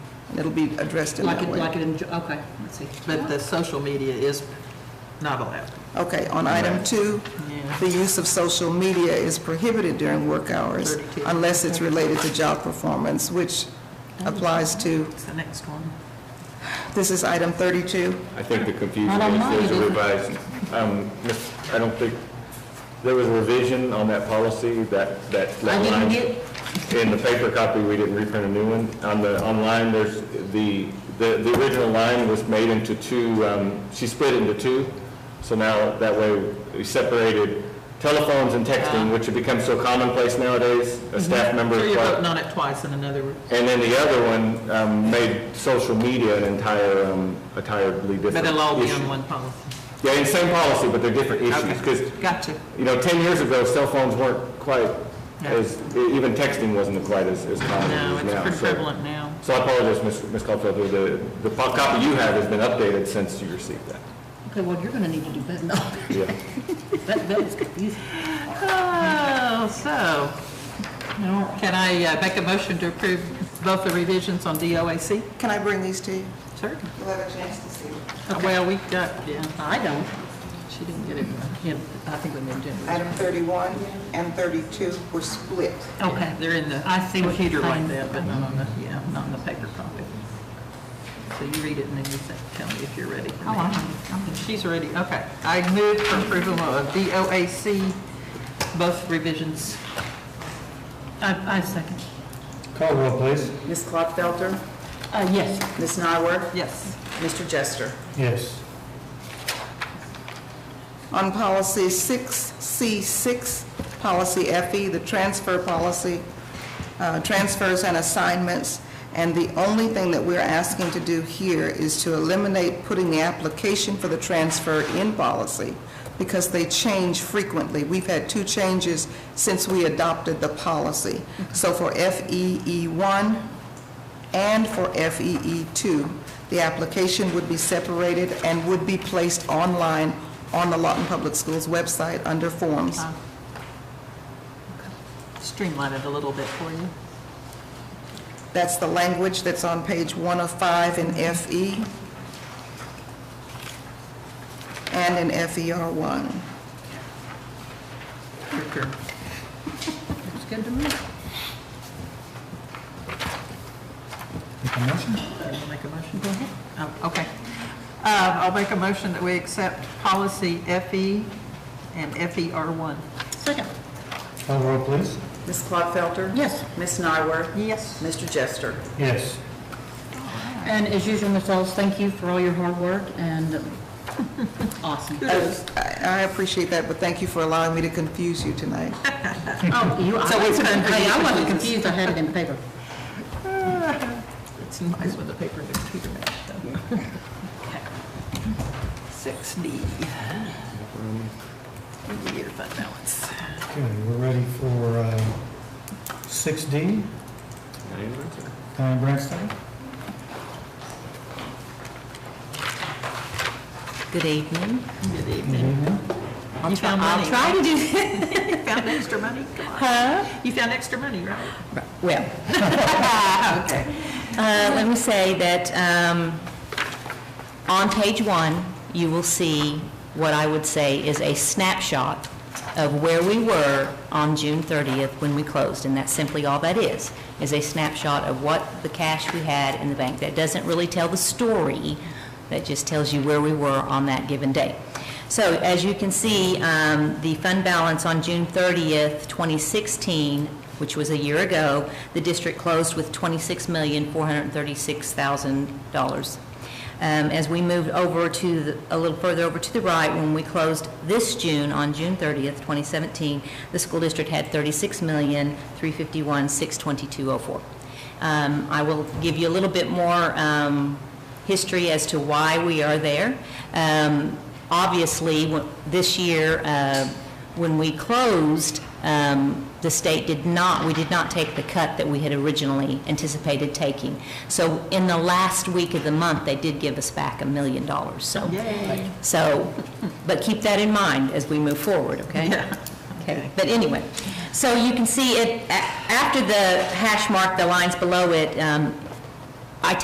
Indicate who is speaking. Speaker 1: It'll be addressed in
Speaker 2: Like
Speaker 1: that
Speaker 2: it,
Speaker 1: way.
Speaker 2: like it, in- okay, let's see.
Speaker 3: But the social media is not allowed.
Speaker 1: Okay, on item two,
Speaker 3: Yeah.
Speaker 1: the use of social media is prohibited during work hours
Speaker 3: Thirty-two.
Speaker 1: unless it's related to job performance, which applies to,
Speaker 3: What's the next one?
Speaker 1: this is item thirty-two.
Speaker 4: I think the confusion
Speaker 2: Not on
Speaker 4: is
Speaker 2: mine,
Speaker 4: there's
Speaker 2: is
Speaker 4: a
Speaker 2: it?
Speaker 4: revised, um, miss- I don't think, there was a revision on that policy, that, that. that
Speaker 2: I didn't
Speaker 4: line.
Speaker 2: get-
Speaker 4: In the paper copy, we didn't reprint a new one. On the, online, there's, the, the, the original line was made into two, um, she split into two. So now, that way, we separated telephones and texting, which have become so commonplace nowadays. A staff member.
Speaker 3: Uh-huh. Mm-hmm. So you're
Speaker 4: required-
Speaker 3: voting on it twice in another,
Speaker 4: And then the other one um, made social media an entire, um, entirely different
Speaker 3: but it'll all be
Speaker 4: issue.
Speaker 3: on one policy.
Speaker 4: Yeah, and same policy, but they're different issues, because,
Speaker 3: Gotcha.
Speaker 4: you know, 10 years ago, cell phones weren't quite
Speaker 3: Yeah.
Speaker 4: as, even texting wasn't quite as as common
Speaker 3: No,
Speaker 4: as it is
Speaker 3: it's
Speaker 4: now.
Speaker 3: pretty
Speaker 4: so-
Speaker 3: prevalent now.
Speaker 4: So I apologize, Ms. Ms. Caulfield, the, the po- copy you have has been updated since you received that.
Speaker 2: Okay, well, you're gonna need to do better, no,
Speaker 4: Yeah.
Speaker 2: that, that was confusing.
Speaker 3: Oh, so, can I uh, make a motion to approve both the revisions on DOAC?
Speaker 1: Can I bring these to you?
Speaker 3: Sure.
Speaker 1: You'll have a chance to see them.
Speaker 3: Well, we got, yeah,
Speaker 2: I don't,
Speaker 3: she didn't get it, yeah, I think we moved in.
Speaker 1: Item thirty-one and thirty-two were split.
Speaker 2: okay.
Speaker 3: They're in the
Speaker 2: I see what
Speaker 3: computer
Speaker 2: you're
Speaker 3: like
Speaker 2: saying.
Speaker 3: that, but not on the, yeah, not on the paper copy. So you read it and then you say- tell me if you're ready for me.
Speaker 2: Oh, I'm ready. I'm
Speaker 3: She's ready, okay. I move for approval of DOAC, both revisions.
Speaker 2: I, I second.
Speaker 5: Call roll, please.
Speaker 6: Ms. Klopfelter,
Speaker 2: Uh, yes.
Speaker 6: Ms. Nyworth,
Speaker 3: Yes.
Speaker 6: Mr. Jester.
Speaker 5: Yes.
Speaker 1: On policy six C six, policy FE, the transfer policy, uh, transfers and assignments. And the only thing that we're asking to do here is to eliminate putting the application for the transfer in policy because they change frequently. We've had two changes since we adopted the policy. So for FEE one, and for FEE2. The application would be separated and would be placed online on the Lawton Public Schools website under forms.
Speaker 2: Uh,
Speaker 3: Streamline it a little bit for you.
Speaker 1: That's the language that's on page one of five in E FE and in E FER1.
Speaker 3: Your turn.
Speaker 2: Looks good to me.
Speaker 3: You wanna Make a motion? Go ahead. Oh, okay. Uh, I'll make a motion that we accept policy FE and E FER1.
Speaker 2: Second.
Speaker 5: Call roll, please.
Speaker 6: Ms. Klopfelter,
Speaker 2: Yes.
Speaker 6: Ms. Nyworth,
Speaker 3: Yes.
Speaker 6: Mr. Jester.
Speaker 5: Yes.
Speaker 2: And as usual, Ms. Ellis, thank you for all your hard work and um, awesome.
Speaker 1: I I appreciate that, but thank you for allowing me to confuse you tonight.
Speaker 2: Oh, you, I,
Speaker 3: So it's time for
Speaker 2: hey,
Speaker 3: you
Speaker 2: I
Speaker 3: to
Speaker 2: wasn't
Speaker 3: do this.
Speaker 2: confused, I had it in paper.
Speaker 3: It's nice when the paper is two dimensional. Six D. Year fund balance.
Speaker 5: Okay, we're ready for uh, six D. Diane Branstad.
Speaker 7: Good
Speaker 3: Good
Speaker 7: evening.
Speaker 5: Good
Speaker 3: evening.
Speaker 5: evening.
Speaker 3: You found
Speaker 7: I'll
Speaker 3: money.
Speaker 7: try to do
Speaker 3: You found extra money? Come on. You found extra money, right?
Speaker 7: Well,
Speaker 3: Okay.
Speaker 7: uh, let me say that um, on page one, you will see what I would say is a snapshot of where we were on June 30th when we closed, and that's simply all that is, is a snapshot of what the cash we had in the bank. That doesn't really tell the story, that just tells you where we were on that given day. So as you can see, um, the fund balance on June 30th, 2016, which was a year ago, the district closed with $26,436,000. Um, As we moved over to, the- a little further over to the right, when we closed this June, on June 30th, 2017, the school district had $36,351,622.04. Um, I will give you a little bit more um, history as to why we are there. Um, Obviously, wh- this year, uh, when we closed, um, the state did not, we did not take the cut that we had originally anticipated taking. So in the last week of the month, they did give us back a million dollars, so. So, but keep that in mind as we move forward, okay? Okay, but anyway, so you can see it, a- after the hash mark, the lines below it, um,